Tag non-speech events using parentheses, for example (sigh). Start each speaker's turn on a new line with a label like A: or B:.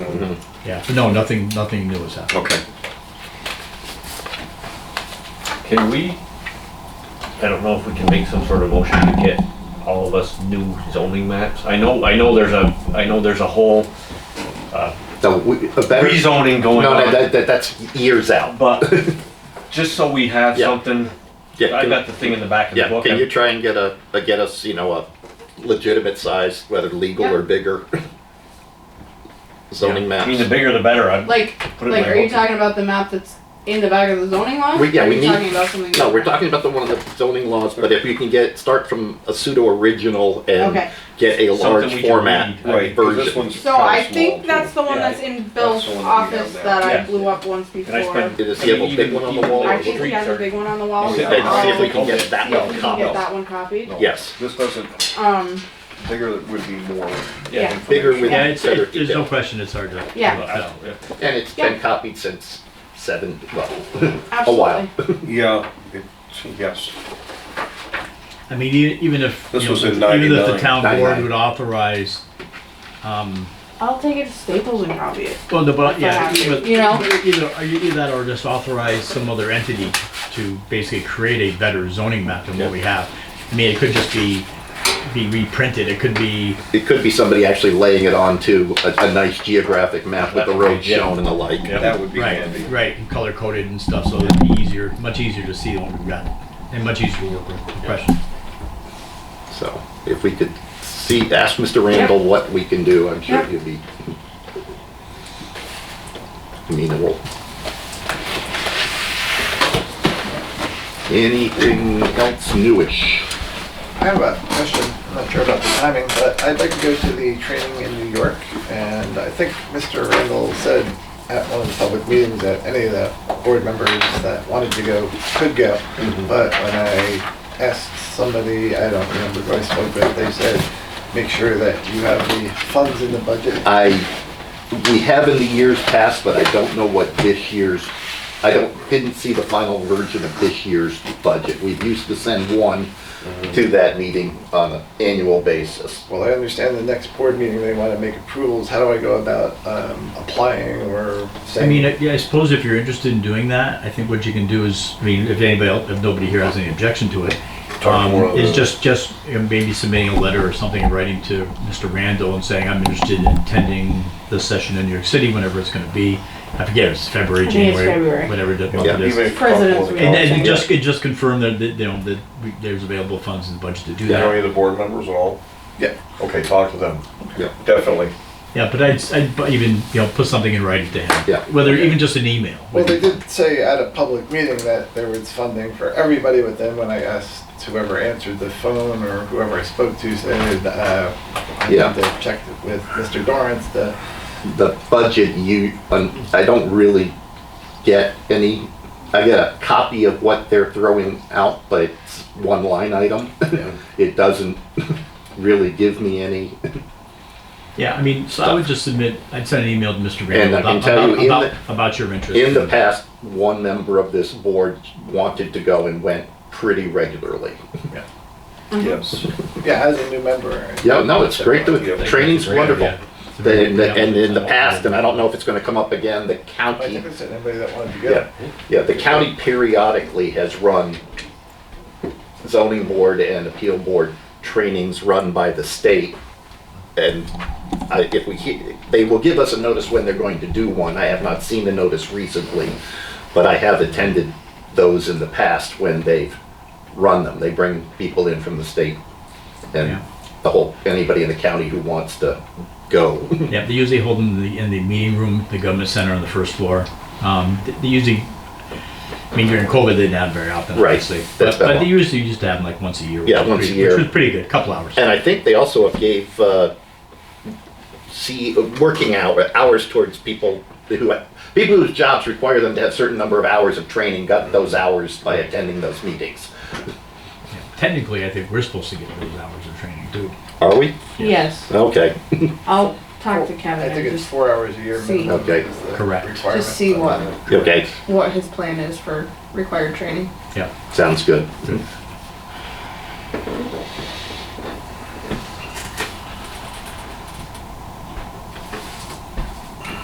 A: Yeah, so no, nothing, nothing new has happened.
B: Okay.
C: Can we, I don't know if we can make some sort of motion to get all of us new zoning maps? I know, I know there's a, I know there's a whole
B: No, we, a better.
C: rezoning
B: No,
C: going
B: no,
C: on,
B: that, that, that's years out. (laughs)
C: but just so we have
B: Yeah.
C: something,
B: Yeah,
C: I
B: can-
C: got the thing in the back of the
B: yeah.
C: book.
B: Can you
C: I'm-
B: try and get a, a get us, you know, a legitimate size, whether legal or bigger zoning
C: I mean, the
B: maps?
C: bigger the better. I'd-
D: Like,
C: Put it in
D: like,
C: my
D: are you
C: book.
D: talking about the map that's in the back of the zoning law?
B: We- yeah,
D: Are
B: we
D: you
B: need-
D: Talking about something.
B: No, we're talking about the one of the zoning laws, but if you can get, start from a pseudo original
D: Okay.
B: and get a
C: Something
B: large
C: we can
B: format
C: read, I
B: version.
C: mean,
E: 'cause this one's
D: So
E: kinda
D: I
E: small,
D: think
E: too.
D: that's the one
C: Yeah,
D: that's in Bill's
E: that's the one that we
D: office
E: have
D: that
E: now.
D: I
C: Yeah.
D: blew up once
C: Can I
D: before.
C: spend?
B: Does he have a
C: I mean,
B: big
C: even-
B: one on the
C: even
B: wall?
C: the
B: or
D: I think he
C: streets
D: has a
C: are-
D: big one on the wall.
E: You
B: See
E: said
D: I'll-
B: if we can get
D: see
B: that
D: if we
B: one
D: can get
B: copied.
D: that one copied.
E: No.
B: Yes,
E: This doesn't,
D: Um,
E: bigger would be more.
D: Yeah.
E: information.
B: bigger with
A: Yeah, it's,
B: better
A: it- there's no
B: detail.
A: question it's hard to.
D: yeah,
C: I- yeah.
B: And it's been copied since seven, well, a
D: absolutely.
B: while.
E: Yeah, it's, yes.
A: I mean, e- even if,
E: This
A: you know,
E: was in
A: even if the
E: 99.
A: town board
B: 99.
A: would authorize, um,
D: I'll take it to Staples and copy it.
A: well, the, but, yeah.
D: Perhaps,
A: but
D: you know?
A: Either, or you do that or just authorize some other entity to basically create a better zoning map than what we have. I mean, it could just be, be reprinted, it could be,
B: It could be somebody actually laying it onto a, a nice geographic map with the roads
C: Yeah.
B: shown and the like.
C: Yeah.
E: That would be
A: right,
E: handy.
A: right, color coded and stuff, so it'd be easier, much easier to see what we've got, and much easier to work with, no question.
B: So if we could see, ask Mr. Randall what we can do, I'm sure
D: Yeah.
B: he'd be amenable. Anything else newish?
F: I have a question. I'm not sure about the timing, but I'd like to go to the training in New York, and I think Mr. Randall said at one of the public meetings that any of the board members that wanted to go could go.
A: Mm-hmm.
F: But when I asked somebody, I don't remember who I spoke with, they said, make sure that you have the funds in the budget.
B: I, we have in the years past, but I don't know what this year's, I don't, didn't see the final version of this year's budget. We used to send one to that meeting on an annual basis.
F: Well, I understand the next board meeting, they want to make approvals. How do I go about um, applying or
A: I mean,
F: saying?
A: I- yeah, I suppose if you're interested in doing that, I think what you can do is, I mean, if anybody, else, if nobody here has any objection to it, um,
E: more of
A: is
E: the-
A: just, just you know, maybe submitting a letter or something in writing to Mr. Randall and saying, I'm interested in attending this session in New York City, whenever it's gonna be. I forget, it's February,
D: I think it's
A: January,
D: February.
A: whatever the month it
B: Yeah.
A: is.
E: Even if
D: President's
E: comfortable to
D: week.
A: And
E: go.
A: then you just, it just confirm that, that, you know, that we- there's available funds in the budget to do
E: You know any
A: that.
E: of the board members at all?
F: Yeah.
E: Okay, talk to them.
B: Yeah.
E: Definitely.
A: Yeah, but I'd, I'd bu- even, you know, put something in writing to him.
B: Yeah.
A: Whether, even just an email.
F: Well, they did say at a public meeting that there was funding for everybody, but then when I asked whoever answered the phone or whoever I spoke to said, uh, I need
B: Yeah.
F: to check it with Mr. Dorrance to,
B: The budget you, um, I don't really get any, I get a copy of what they're throwing out, but it's one line item. (laughs) It doesn't really give me any,
A: Yeah, I mean, so I would just submit, I'd send an email to Mr.
B: And
A: Randall
B: I can
A: about,
B: tell you
A: about,
B: in
A: about, about your interest.
B: In the past, one member of this board wanted to go and went pretty regularly.
D: Mm-hmm.
E: Yes.
F: yeah, as a new member.
B: Yeah, no, it's great to,
E: Yeah.
B: training's wonderful.
A: Yeah.
B: And, and in the past, and I don't know if it's gonna come up again, the
F: I
B: county,
F: think I said anybody that wanted to
B: yeah,
F: go.
B: yeah, the county periodically has run zoning board and appeal board trainings run by the state. And I, if we, he- they will give us a notice when they're going to do one. I have not seen the notice recently, but I have attended those in the past when they've run them. They bring people in from the state
A: Yeah.
B: and the whole, anybody in the county who wants to go.
A: Yeah, they usually hold them in the, in the meeting room, the government center on the first floor. Um, th- they usually, I mean, during COVID, they didn't have very often,
B: Right.
A: obviously.
B: That's
A: But, but
B: been-
A: they usually used to have them like once a year. which
B: Yeah,
A: was
B: once a
A: pretty-
B: year.
A: Which was pretty good, couple hours.
B: And I think they also gave, uh, see, working hour, hours towards people who, people whose jobs require them to have certain number of hours of training, got those hours by attending those meetings.
A: Technically, I think we're supposed to get those hours of training too.
B: Are we?
D: Yes,
B: Okay.
D: I'll talk to
F: I
D: Kevin
F: think
D: and
F: it's
D: just,
F: four hours a year.
D: See.
F: minimum
B: Okay.
F: is the
A: Correct.
F: requirement.
D: Just see what-
B: Okay,
D: what his plan is for required training.
A: Yeah,
B: sounds good.
A: Good.